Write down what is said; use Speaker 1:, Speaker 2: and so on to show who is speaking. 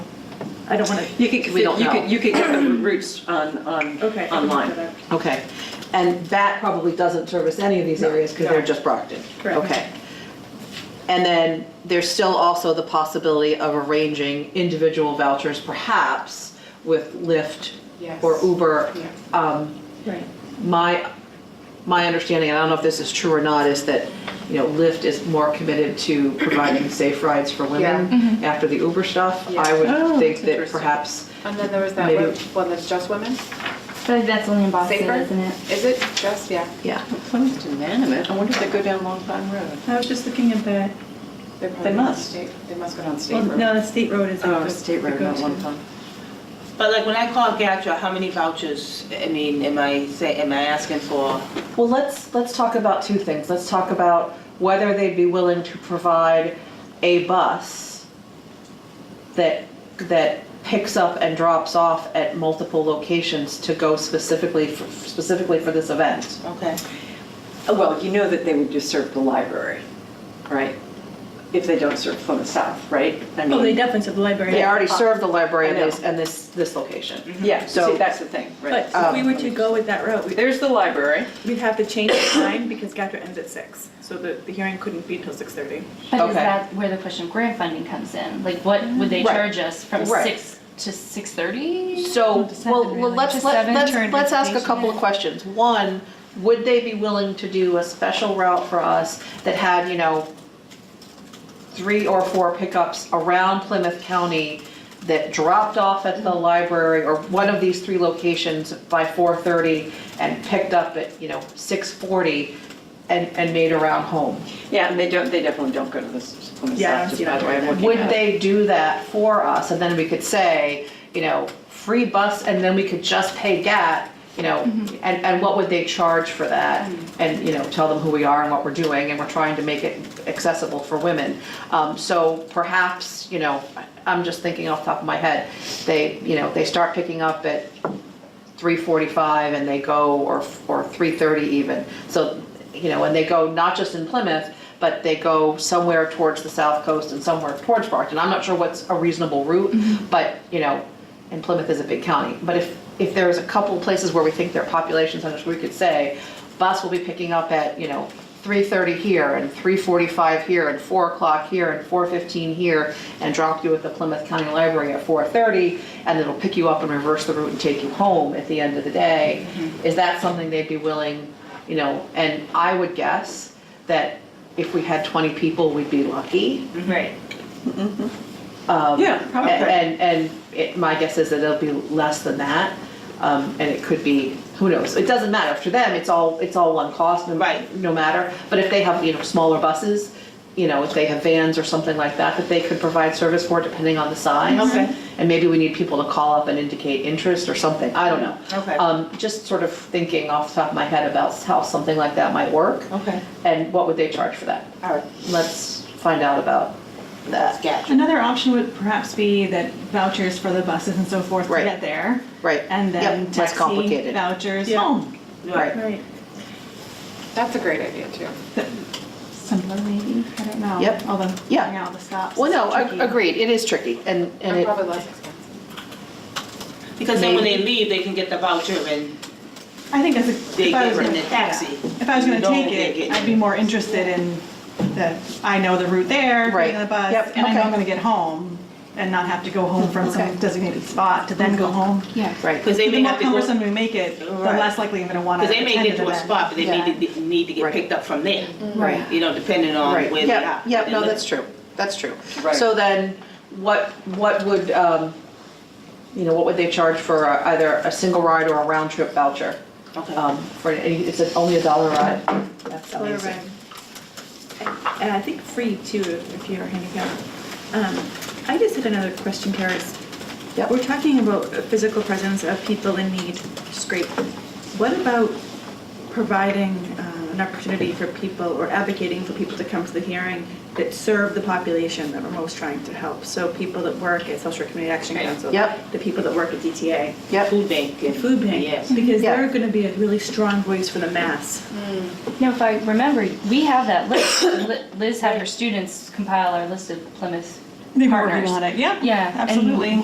Speaker 1: I don't want to.
Speaker 2: You could,
Speaker 3: We don't
Speaker 2: you
Speaker 3: know.
Speaker 2: could, you could get the routes on, on,
Speaker 1: Okay.
Speaker 2: online.
Speaker 3: Okay, and that probably doesn't service any of these areas because they're just Brockton?
Speaker 1: Correct.
Speaker 3: Okay. And then there's still also the possibility of arranging individual vouchers perhaps with Lyft or
Speaker 4: Yes.
Speaker 3: Uber.
Speaker 4: Yeah.
Speaker 3: Um,
Speaker 1: Right.
Speaker 3: My, my understanding, and I don't know if this is true or not, is that, you know, Lyft is more committed to providing safe rides for women after the Uber stuff. I
Speaker 4: Yeah.
Speaker 3: would
Speaker 2: Mm-hmm. Oh,
Speaker 3: think
Speaker 2: that's
Speaker 3: that
Speaker 2: interesting.
Speaker 3: perhaps,
Speaker 4: And then there was that
Speaker 3: Maybe-
Speaker 4: wo- one that's just women?
Speaker 5: feel like that's only in Boston,
Speaker 4: Safer?
Speaker 5: isn't it?
Speaker 4: Is it just, yeah,
Speaker 3: yeah.
Speaker 2: Someone's inanimate, I wonder if they go down Long Pond Road.
Speaker 1: I was just looking at that.
Speaker 4: they're probably on
Speaker 2: must.
Speaker 4: state, they must go down state
Speaker 1: Well,
Speaker 4: road.
Speaker 1: no, the state road is. a
Speaker 2: Oh,
Speaker 1: good-
Speaker 2: State
Speaker 1: a
Speaker 2: Road, not
Speaker 1: go-to.
Speaker 2: Long Pond.
Speaker 6: But like when I call Gatra, how many vouchers, I mean, am I say, am I asking for?
Speaker 3: Well, let's, let's talk about two things. Let's talk about whether they'd be willing to provide a bus that, that picks up and drops off at multiple locations to go specifically, for- specifically for this event.
Speaker 6: Okay.
Speaker 2: Oh, Well, you know that they would just serve the library, right? If they don't serve Plymouth South, right? I
Speaker 1: Oh, they
Speaker 2: mean,
Speaker 1: definitely said the library.
Speaker 3: They already serve the library
Speaker 2: I know. Mm-hmm.
Speaker 3: and this, and this, this location.
Speaker 2: Yeah,
Speaker 3: So-
Speaker 2: so that's the thing,
Speaker 1: But
Speaker 2: right?
Speaker 1: if we were to go with that route, we-
Speaker 2: There's the library.
Speaker 1: we'd have to change the time because GATRA ends at six. So the, the hearing couldn't be until 6:30.
Speaker 5: But
Speaker 3: Okay.
Speaker 5: is that where the question of grant funding comes in? Like, what would they
Speaker 3: Right.
Speaker 5: charge us from
Speaker 3: Right.
Speaker 5: six to six thirty?
Speaker 3: So, well, well, let's, let's, let's let's ask a couple of questions. One, would they be willing to do a special route for us that had, you know, three or four pickups around Plymouth County that dropped off at the library or one of these three locations by 4:30 and picked up at, you know, 6:40 and, and made around home?
Speaker 2: Yeah, and they don't, they definitely don't go to the s- Plymouth
Speaker 1: Yeah, I
Speaker 2: South,
Speaker 1: don't
Speaker 2: just
Speaker 1: see
Speaker 2: by the
Speaker 1: that
Speaker 2: way, I'm
Speaker 1: going
Speaker 2: looking at
Speaker 3: Would
Speaker 2: it.
Speaker 3: they do that for us? And then we could say, you know, free bus, and then we could just pay GAT, you know, and, and what would they charge for that? And, you know, tell them who we are and what we're doing, and we're trying to make it accessible for women. Um, So perhaps, you know, I- I'm just thinking off the top of my head, they, you know, they start picking up at 3:45 and they go, or, or 3:30 even. So, you know, and they go not just in Plymouth, but they go somewhere towards the south coast and somewhere towards Brockton. I'm not sure what's a reasonable route, but, you know, and Plymouth is a big county. But if, if there's a couple places where we think there are population centers, we could say, bus will be picking up at, you know, 3:30 here and 3:45 here and 4 o'clock here and 4:15 here and drop you at the Plymouth County Library at 4:30 and it'll pick you up and reverse the route and take you home at the end of the day. Is that something they'd be willing, you know, and I would guess that if we had 20 people, we'd be lucky.
Speaker 5: Right.
Speaker 3: Um,
Speaker 2: Yeah, probably.
Speaker 3: And, and it- my guess is that it'll be less than that. Um, And it could be, who knows? It doesn't matter. For them, it's all, it's all one cost, no-
Speaker 6: Right.
Speaker 3: no matter. But if they have, you know, smaller buses, you know, if they have vans or something like that, that they could provide service for depending on the size.
Speaker 6: Okay.
Speaker 3: And maybe we need people to call up and indicate interest or something. I don't know.
Speaker 6: Okay.
Speaker 3: Um, Just sort of thinking off the top of my head about how something like that might work.
Speaker 6: Okay.
Speaker 3: And what would they charge for that?
Speaker 6: All right.
Speaker 3: Let's find out about that.
Speaker 6: That's Gatra.
Speaker 7: Another option would perhaps be that vouchers for the buses and so forth to
Speaker 3: Right.
Speaker 7: get there,
Speaker 3: Right.
Speaker 7: and then
Speaker 3: Yep, less
Speaker 7: taxi
Speaker 3: complicated.
Speaker 7: vouchers
Speaker 1: Yeah.
Speaker 7: home.
Speaker 3: Right.
Speaker 1: Right.
Speaker 4: That's a great idea too.
Speaker 7: Simpler maybe, E. I don't know.
Speaker 3: Yep.
Speaker 7: Although,
Speaker 3: Yeah.
Speaker 7: figuring out all the stops.
Speaker 3: Well,
Speaker 7: is
Speaker 3: no, ag-
Speaker 7: tricky.
Speaker 3: agreed, it is tricky, and, and
Speaker 4: And
Speaker 3: it,
Speaker 4: probably less expensive.
Speaker 6: Because then when they leave, they can get the voucher and
Speaker 7: I think as a,
Speaker 6: they
Speaker 7: if I was
Speaker 6: get
Speaker 7: gonna,
Speaker 6: in the taxi.
Speaker 7: if I was gonna
Speaker 6: You don't
Speaker 7: take
Speaker 6: get
Speaker 7: it, I'd be more interested in the, I know the route there,
Speaker 3: Right.
Speaker 7: getting on the bus,
Speaker 3: Yep,
Speaker 7: and I know
Speaker 3: okay.
Speaker 7: I'm gonna get home and not have to go home from
Speaker 3: Okay.
Speaker 7: some designated spot to then go home.
Speaker 5: Yeah.
Speaker 3: right,
Speaker 6: Because they
Speaker 7: The
Speaker 6: may
Speaker 7: more
Speaker 6: have to go,
Speaker 7: cumbersome we make it, the
Speaker 6: Right.
Speaker 7: less likely I'm gonna wanna
Speaker 6: because they
Speaker 7: attend
Speaker 6: may get to a
Speaker 7: event.
Speaker 6: spot, but they may need, need to
Speaker 3: Right.
Speaker 6: get picked up from there.
Speaker 3: Right.
Speaker 6: You know, depending on
Speaker 3: right.
Speaker 6: where they
Speaker 3: Yep,
Speaker 6: are.
Speaker 3: Yep, no, that's true, that's true.
Speaker 2: Right.
Speaker 3: So then, what, what would, um, you know, what would they charge for uh, either a single ride or a round trip voucher?
Speaker 6: Okay.
Speaker 3: Um, For, any- it's a- only a dollar ride, that's
Speaker 1: Color
Speaker 3: amazing.
Speaker 1: red. And I think free too, if you're handicapped. Um, I just had another question, Karis.
Speaker 3: Yep.
Speaker 1: We're talking about physical presence of people in need, scrape. What about providing uh, an opportunity for people or advocating for people to come to the hearing that serve the population that we're most trying to help? So people that work at Social Community Action
Speaker 6: Right.
Speaker 1: Council.
Speaker 3: Yep.
Speaker 1: The people that work at DTA.
Speaker 3: Yep,
Speaker 6: Food bank.
Speaker 1: The
Speaker 6: and-
Speaker 1: food bank.
Speaker 6: Yes.
Speaker 1: Because
Speaker 3: Yeah.
Speaker 1: they're going to be a really strong voice for the mass.
Speaker 5: No, if I remember, we have that list. Li- Liz had her students compile our list of Plymouth
Speaker 7: They were
Speaker 5: partners.
Speaker 7: working on it, yeah.
Speaker 5: Yeah, and
Speaker 7: Absolutely.